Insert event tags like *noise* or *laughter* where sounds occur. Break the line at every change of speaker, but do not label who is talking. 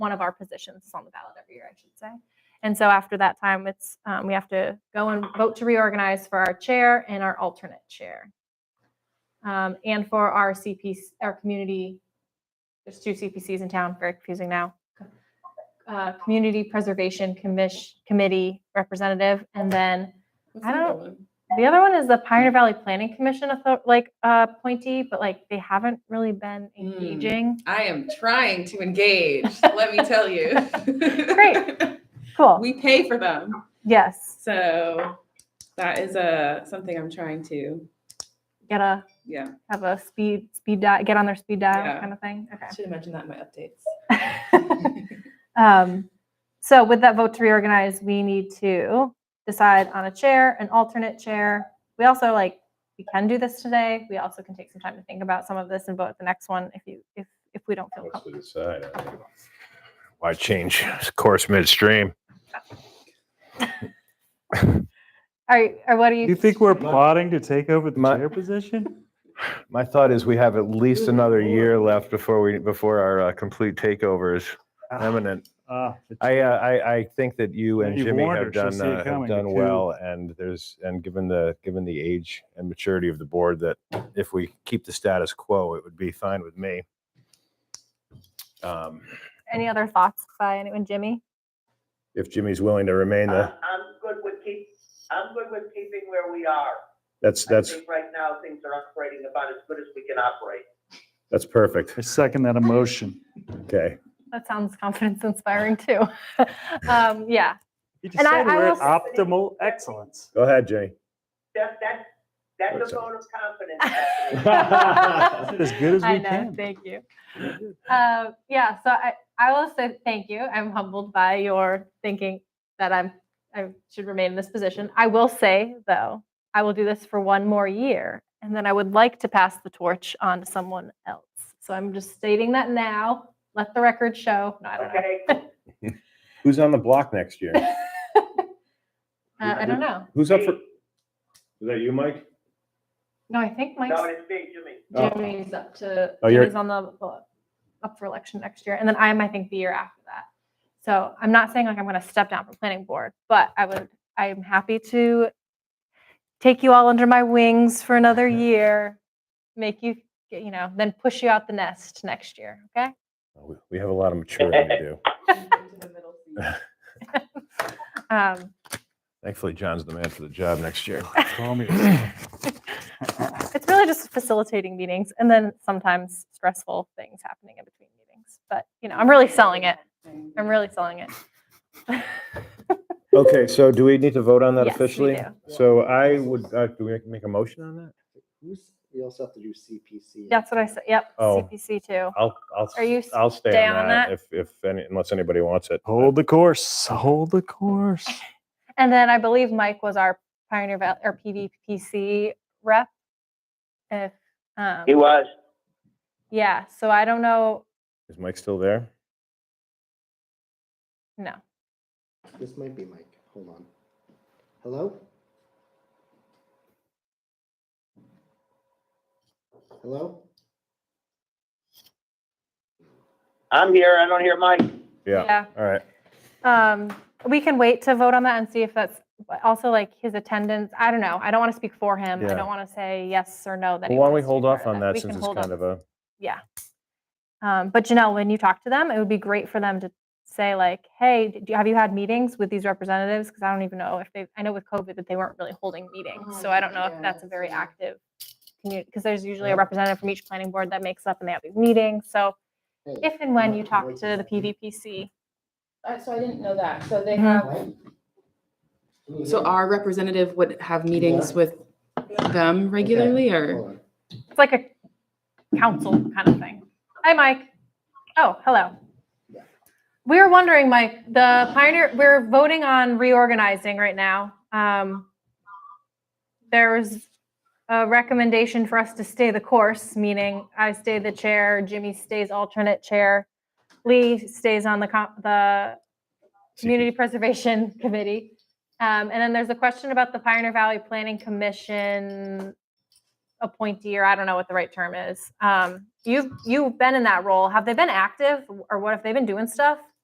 one of our positions is on the ballot every year, I should say. And so after that time, it's, um, we have to go and vote to reorganize for our chair and our alternate chair. Um, and for our CPC, our community, there's two CPCs in town, very confusing now. Uh, Community Preservation Commission, Committee Representative, and then I don't- the other one is the Pioneer Valley Planning Commission, author- like, uh, appointee, but like, they haven't really been
Mm.
engaging.
I am trying to engage. let me tell you.
*laughs* Great. Cool,
*laughs* we pay for them,
yes,
so that is a something I'm trying to.
get a
Yeah,
have a speed speed dial, get on their speed dial
Yeah.
kind of thing.
I should have mentioned that in my updates.
Okay. um, so with that vote to reorganize, we need to decide on a chair, an alternate chair. We also like we can do this today. We also can take some time to think about some of this and vote at the next one if you if if we don't feel
Once we
comfortable.
Oh.
decide, I mean, why change course midstream?
All right, or what do you?
You think we're
My-
plotting to take over the
my- *laughs*
chair position?
My thought is we have at least
Good
another
lord.
year left before we, before our uh, complete takeover is imminent.
Ah, the
I, uh, I, I think that you
Yeah,
and
you've
Jimmy
warned
have
her. She'll
done,
see it
uh, have
coming, the
done
coup.
well. And there's, and given the, given the age and maturity of the board, that if we keep the status quo, it would be fine with me. Um,
Any other thoughts by anyone, Jimmy?
If Jimmy's willing to remain the,
Ah.
I'm Uh, I'm good with keep, I'm good with keeping where we are.
that's,
I
that's,
think right now, things are operating about as good as we can operate.
that's perfect.
I second that emotion.
Okay.
That sounds *laughs* confidence inspiring too. *laughs* um, yeah,
You just
And I-
said we're
I
at optimal excellence.
Go ahead, Jimmy.
That, that, that's
That's
a
all.
vote of confidence.
*laughs*
actually.
I said As good as
I
we
know.
can.
Thank you. Uh, yeah. So I, I will say thank you. I'm humbled by your thinking that I'm I should remain in this position. I will say though, I will do this for one more year, and then I would like to pass the torch on to someone else. So I'm just stating that now. Let the record show. No, I don't know.
Okay,
Who's on the block next year?
Uh, I don't know.
Who's up for?
me,
Is that you, Mike?
No, I think Mike's
no, it's me, Jimmy.
Oh.
Jimmy's up to
Oh, you're-
Jimmy's on the well, up for election next year, and then I am, I think, the year after that. So I'm not saying like I'm going to step down from planning board, but I would. I am happy to take you all under my wings for another year, make you you know, then push you out the nest next year. Okay.
Uh, We- We have a lot of maturing to
*laughs*
do.
Um,
Thankfully, John's the man for the job
*laughs*
next year.
Call me.
it's really just facilitating meetings, and then sometimes stressful things happening in between meetings. But you know, *laughs* I'm really selling it. I'm really selling it.
Okay, so do we need to vote on that
Yes, we
officially?
do.
So I would, uh, do we make a motion on that?
Who's, we also have to do CPC.
That's what I said. Yep.
Oh.
CPC too.
I'll, I'll,
Are you
I'll stay
stay
on
on
that if, if, any- unless anybody wants it.
Hold the course, hold the course.
And then I believe Mike was our Pioneer Valley or PVPC rep. If um,
He was,
yeah, so I don't know.
Is Mike still there?
No,
This might be Mike. Hold on. Hello? Hello?
I'm here, I don't hear Mike.
Yeah, all right.
yeah. Um, we can wait to vote on that and see if that's but also like his attendance. I don't know. I don't want to speak for him.
Yeah.
I don't want to say yes or no. That
Well,
he
why don't we
wants to be
hold
part
off
of
on that
We
since
can
it's
hold
kind
off.
of a,
yeah. Um, but Janelle, when you talk to them, it would be great for them to say like, "Hey, d- do, have you had meetings with these representatives?" Because I don't even know if they. I know with COVID that they weren't really holding meetings, so I don't know if that's a very active community. Because there's usually a representative from each planning board that makes up and they have these meetings. So
Hey,
if and when
Mike,
you talk
Mike
to
is
the
up here.
PVPC,
Uh, So I didn't know that. So they
Mhm.
have,
Mike? Can you
so
hear me?
our representative would have meetings with them regularly or?
Hold on.
it's like a council kind of thing. Hi, Mike. Oh, hello.
Yeah.
We were wondering, Mike, the Pioneer, we're voting on reorganizing right now. Um, There was a recommendation for us to stay the course, meaning I stay the chair, Jimmy stays alternate chair, Lee stays on the, co- the Community Preservation *laughs* Committee. Um, And then there's a question about the Pioneer Valley Planning Commission appointee, or I don't know what the right term is. Um, You've, you've been in that role. Have they been active or what have they been doing stuff?